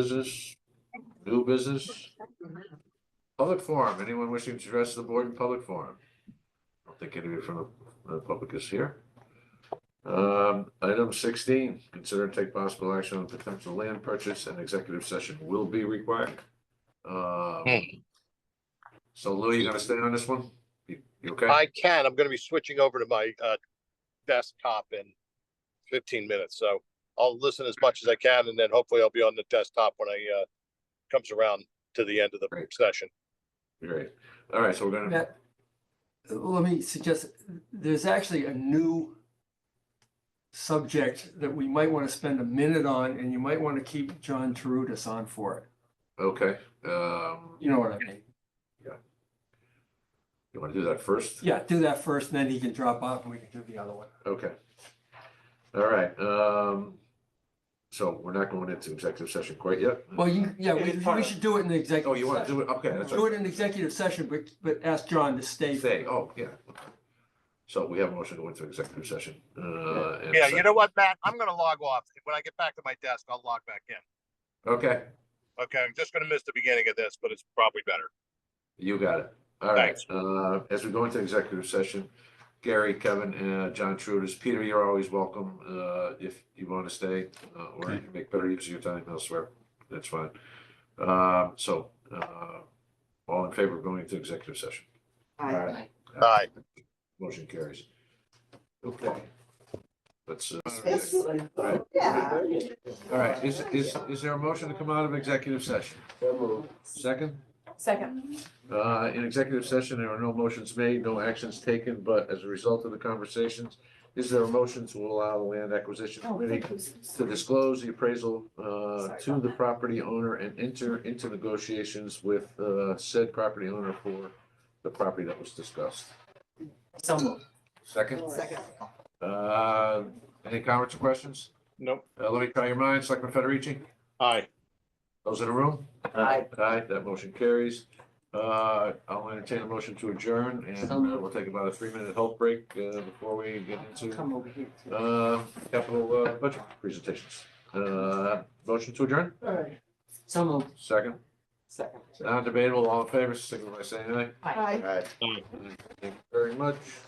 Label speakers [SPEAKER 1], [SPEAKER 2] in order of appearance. [SPEAKER 1] business, new business? Public forum, anyone wishing to address the board in public forum? I don't think anybody from the- the public is here. Um, item sixteen, consider and take possible action on potential land purchase and executive session will be required. Um
[SPEAKER 2] Hmm.
[SPEAKER 1] so Lou, you gonna stay on this one? You you okay?
[SPEAKER 2] I can. I'm gonna be switching over to my uh desktop in fifteen minutes, so I'll listen as much as I can and then hopefully I'll be on the desktop when I uh comes around to the end of the
[SPEAKER 1] Great.
[SPEAKER 2] session.
[SPEAKER 1] Great. All right, so we're gonna,
[SPEAKER 3] Matt, let me suggest, there's actually a new subject that we might want to spend a minute on, and you might want to keep John Terudis on for it.
[SPEAKER 1] okay, um,
[SPEAKER 3] You know what I mean?
[SPEAKER 1] you wanna do that first?
[SPEAKER 3] Yeah, do that first, and then he can drop off and we can do the other one.
[SPEAKER 1] Okay. All right, um, so we're not going into executive session quite yet?
[SPEAKER 3] Well, you, yeah,
[SPEAKER 1] It
[SPEAKER 3] we,
[SPEAKER 1] is part
[SPEAKER 3] we
[SPEAKER 1] of-
[SPEAKER 3] should do it in the
[SPEAKER 1] Oh,
[SPEAKER 3] executive
[SPEAKER 1] you want to
[SPEAKER 3] session.
[SPEAKER 1] do it? Okay, that's
[SPEAKER 3] Do
[SPEAKER 1] right.
[SPEAKER 3] it in executive session, but, but ask John to stay.
[SPEAKER 1] Stay, oh, yeah. So we have a motion to go into executive session. Uh, and
[SPEAKER 2] Yeah,
[SPEAKER 1] sec-
[SPEAKER 2] you know what, Matt? I'm gonna log off. When I get back to my desk, I'll log back in.
[SPEAKER 1] Okay,
[SPEAKER 2] Okay, I'm just gonna miss the beginning of this, but it's probably better.
[SPEAKER 1] you got it. All right, uh, as we go into executive session, Gary, Kevin, uh, John Trudis, Peter, you're always welcome, uh, if you want to stay, uh, or you can make better use of your time elsewhere. That's fine. Uh, so, uh, all in favor of going into executive session?
[SPEAKER 4] Aye.
[SPEAKER 2] Aye.
[SPEAKER 1] Motion carries. Okay. Let's, uh,
[SPEAKER 4] Yeah.
[SPEAKER 1] all right, is, is, is there a motion to come out of executive session? Second,
[SPEAKER 4] Second.
[SPEAKER 1] uh, in executive session, there are no motions made, no actions taken, but as a result of the conversations, is there a motion to allow the land acquisition
[SPEAKER 4] Oh,
[SPEAKER 1] committee to disclose the appraisal, uh, to the property owner and enter into negotiations with, uh, said property owner for the property that was discussed?
[SPEAKER 4] So moved.
[SPEAKER 1] Second?
[SPEAKER 4] Second.
[SPEAKER 1] Uh, any comments or questions?
[SPEAKER 2] Nope.
[SPEAKER 1] Uh, let me try your minds, Selectman Federici,
[SPEAKER 2] Aye.
[SPEAKER 1] those in the room?
[SPEAKER 4] Aye.
[SPEAKER 1] Aye, that motion carries. Uh, I'll entertain a motion to adjourn and
[SPEAKER 3] So moved.
[SPEAKER 1] uh, we'll take about a three-minute health break, uh, before we get into,
[SPEAKER 3] Come over here.
[SPEAKER 1] uh, capital, uh, budget presentations. Uh, motion to adjourn,
[SPEAKER 3] All right. So moved.
[SPEAKER 1] second,
[SPEAKER 3] Second.
[SPEAKER 1] non-debatable, all in favor, signal by saying aye.
[SPEAKER 4] Aye.
[SPEAKER 1] Aye. Thank you very much.